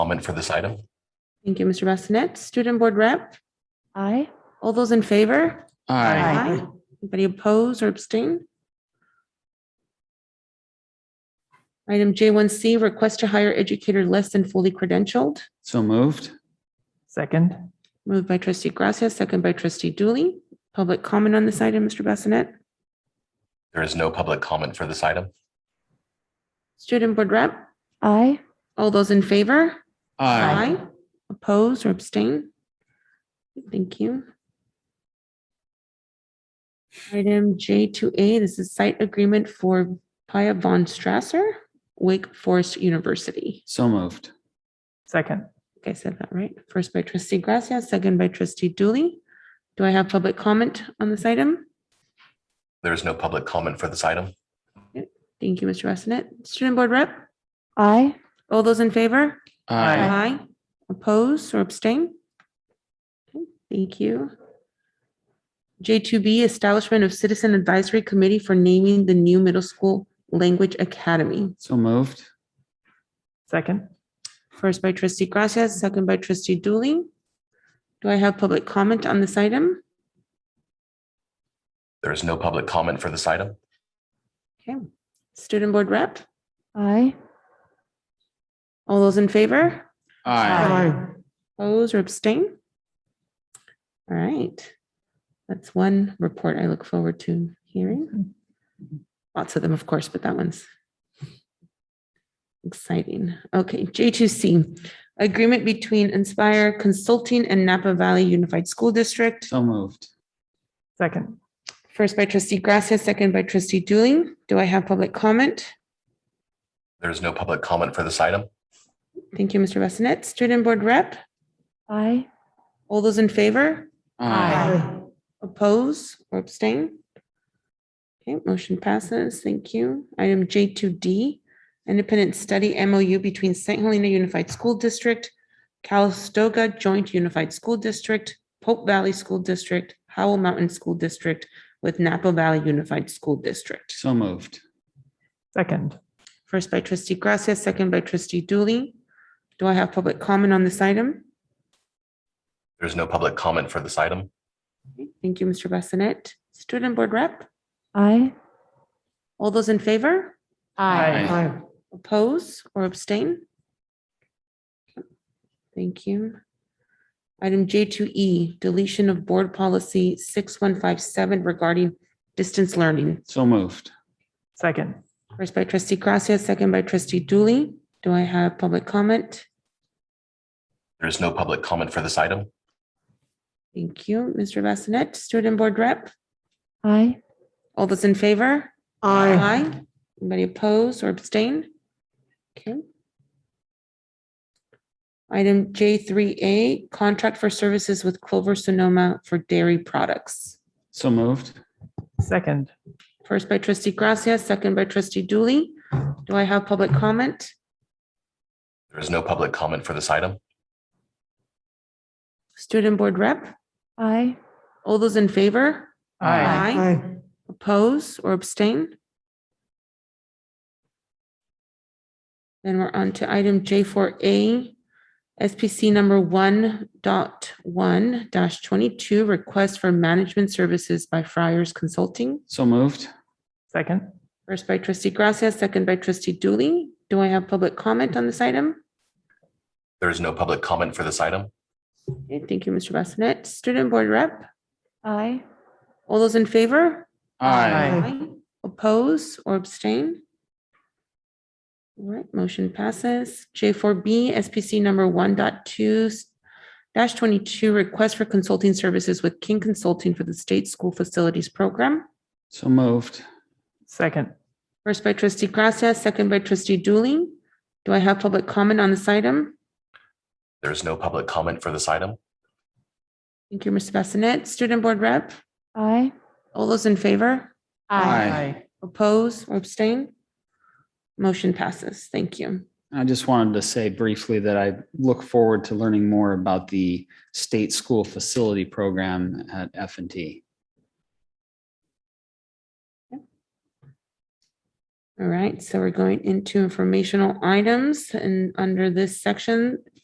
comment for this item? Thank you, Mr. Bassinet. Student Board Rep, Aye. all those in favor? Aye. Anybody oppose or abstain? Item J1C, request to hire educator less than fully credentialed, So moved. Second. moved by trustee Gracia, second by trustee Dooley. Public comment on this item, Mr. Bassinet? There is no public comment for this item. Student Board Rep, Aye. all those in favor? Aye. Oppose or abstain? Thank you. Item J2A, this is site agreement for Pia Von Strasser, Wake Forest University. So moved. Second. I think I said that right. First by trustee Gracia, second by trustee Dooley. Do I have public comment on this item? There is no public comment for this item. Thank you, Mr. Bassinet. Student Board Rep, Aye. all those in favor? Aye. Aye. Oppose or abstain? Okay, Thank you. J2B, Establishment of Citizen Advisory Committee for Naming the New Middle School Language Academy. So moved. Second. First by trustee Gracia, second by trustee Dooley. Do I have public comment on this item? There is no public comment for this item. Okay. Student Board Rep, Aye. all those in favor? Oppose or abstain? All right. That's one report I look forward to hearing. Lots of them, of course, but that one's exciting. Okay, J2C, agreement between Inspire Consulting and Napa Valley Unified School District. So moved. Second. First by trustee Gracia, second by trustee Dooley. Do I have public comment? There is no public comment for this item. Thank you, Mr. Bassinet. Student Board Rep, Aye. all those in favor? Oppose or abstain? Okay, motion passes. Thank you. Item J2D, Independent Study MOU between St. Helena Unified School District, Calistoga Joint Unified School District, Pope Valley School District, Howell Mountain School District with Napa Valley Unified School District. So moved. Second. First by trustee Gracia, second by trustee Dooley. Do I have public comment on this item? There is no public comment for this item. Okay, Thank you, Mr. Bassinet. Student Board Rep, Aye. all those in favor? Aye. Oppose or abstain? Thank you. Item J2E, deletion of board policy 6157 regarding distance learning. So moved. Second. First by trustee Gracia, second by trustee Dooley. Do I have public comment? There is no public comment for this item. Thank you, Mr. Bassinet. Student Board Rep, Aye. all those in favor? Aye. Anybody oppose or abstain? Okay. Item J3A, contract for services with Clover Sonoma for dairy products. So moved. Second. First by trustee Gracia, second by trustee Dooley. Do I have public comment? There is no public comment for this item. Student Board Rep, Aye. all those in favor? Aye. Oppose or abstain? Then we're on to item J4A, SPC number one dot one dash twenty-two, request for management services by Friars Consulting. So moved. Second. First by trustee Gracia, second by trustee Dooley. Do I have public comment on this item? There is no public comment for this item. Okay, thank you, Mr. Bassinet. Student Board Rep, Aye. all those in favor? Aye. Aye. Oppose or abstain? All right, motion passes. J4B, SPC number one dash twenty-two, request for consulting services with King Consulting for the State School Facilities Program. So moved. Second. First by trustee Gracia, second by trustee Dooley. Do I have public comment on this item? There is no public comment for this item. Thank you, Mr. Bassinet. Student Board Rep, Aye. all those in favor? Aye. Oppose or abstain? Motion passes. Thank you. I just wanted to say briefly that I look forward to learning more about the state school facility program at F and T. All right, so we're going into informational items and under this section,